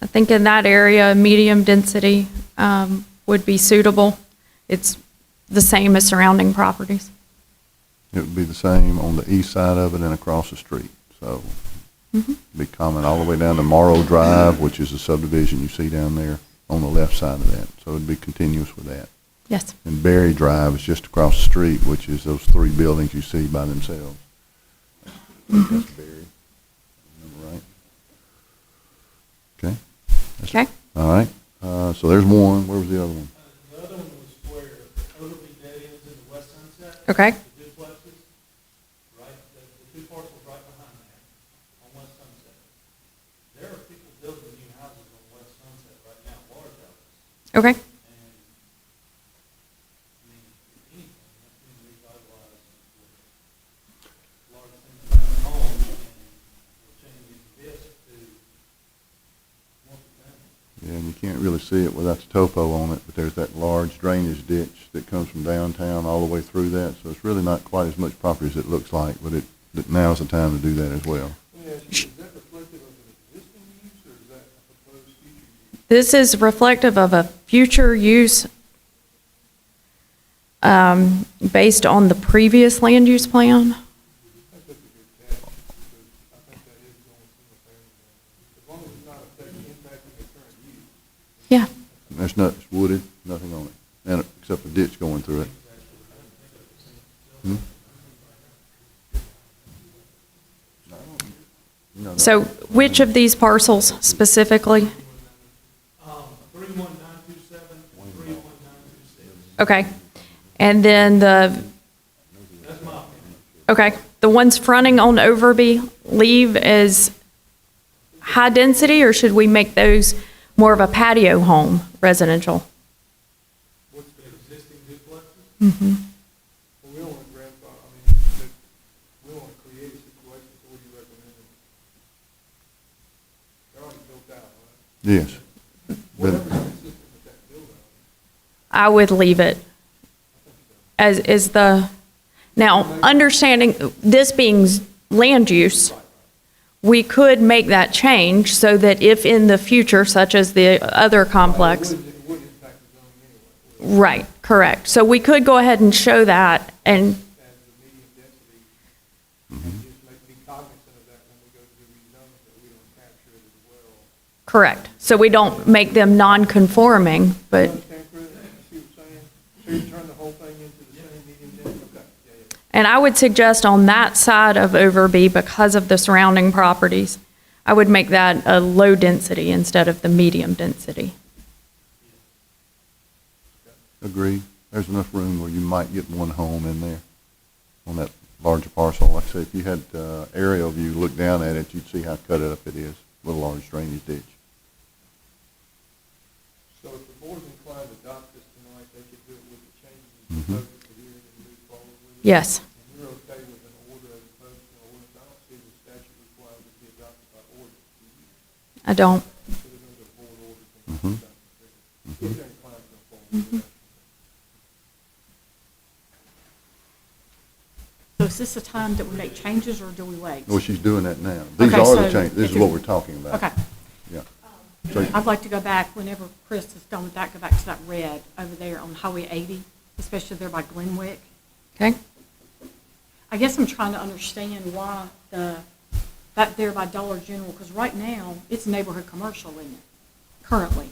I think in that area, medium density um, would be suitable. It's the same as surrounding properties. It would be the same on the east side of it and across the street. So Mm-hmm. be common all the way down to Morrow Drive, which is the subdivision you see down there on the left side of that. So it'd be continuous with that. Yes. And Berry Drive is just across the street, which is those three buildings you see by themselves. I think That's Berry, remember right? Okay, Okay. all right. Uh, so there's one. Where was the other one? The other one was where Ogilvy Dead ends into West Sunset, Okay. the duplexes, right, the, the two parcels right behind that, on West Sunset. There are people building new houses on West Sunset right now, large houses, Okay. and, I mean, if anything, that's been revitalized with large things around home, and we're changing this to multifamily. Yeah, and you can't really see it without the topo on it, but there's that large drainage ditch that comes from downtown all the way through that. So it's really not quite as much property as it looks like, but it, that now's the time to do that as well. Let me ask you, is that reflective of an existing use, or is that a proposed future use? This is reflective of a future use um, based on the previous land use plan. Yeah. There's not, it's wooded, nothing on it, and, except a ditch going through it. Hmm? No, no. So which of these parcels specifically? Um, three one nine two seven, three one nine two six. Okay. And then the, That's my opinion. okay, the ones fronting on Overby leave as high density, or should we make those more of a patio home residential? What's the existing duplexes? Mm-hmm. Well, we don't want to grandfather, I mean, that- we don't want to create a situation, so what do you recommend? They're Yes. already built out, right? But- Whatever's consistent with that build out. I would leave it as is the, now, understanding this being land use, we could make that change so that if in the future, such as the other complex. It would impact the zoning anyway, Right, correct. So we could go ahead and show that and, and the medium density, and just make, be cognizant of that when we go to do rezoning, that we don't capture it as well. correct. So we don't make them non-conforming, but, You understand, Chris, you see what I'm saying? So you turn the whole thing into the same medium density, okay, yeah, yeah. and I would suggest on that side of Overby, because of the surrounding properties, I would make that a low density instead of the medium density. Agreed. There's enough room where you might get one home in there on that larger parcel. Like I say, if you had uh, aerial view, look down at it, you'd see how cut up it is with a large drainage ditch. So if the board's inclined to adopt this tonight, they could do it with the changes you proposed for hearing and move forward with it. Yes, And you're okay with an order as opposed to an ordinance, I don't see the statute requires it to be adopted by ordinance. I don't. So they're going to do a board order from the statute. If they're inclined to go forward with that. So is this the time that we make changes, or do we wait? Well, she's doing that now. These Okay, are the so changes, this it is what is- we're talking about. Okay. Yeah. So, I'd like to go back, whenever Chris is done with that, go back to that red over there on Highway 80, especially there by Glenwick. Okay? I guess I'm trying to understand why the, that there by Dollar General, because right now, it's neighborhood commercial, isn't it, currently?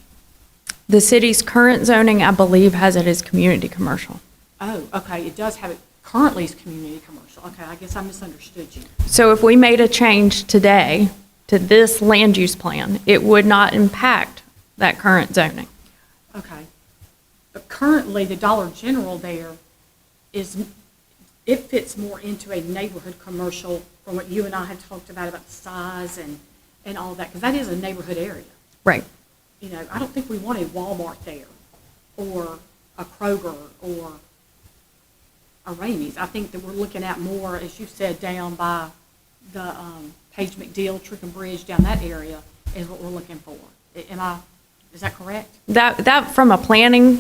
The city's current zoning, I believe, has it as community commercial. Oh, okay, it does have it, currently is community commercial. Okay, I guess I misunderstood you. So if we made a change today to this land use plan, it would not impact that current zoning. Okay. But currently, the Dollar General there is, it fits more into a neighborhood commercial from what you and I had talked about, about the size and, and all that, because that is a neighborhood area. Right. You know, I don't think we want a Walmart there, or a Kroger, or a Ramey's. I think that we're looking at more, as you said, down by the um, Page McDill, Trick and Bridge, down that area is what we're looking for. Am I, is that correct? That, that, from a planning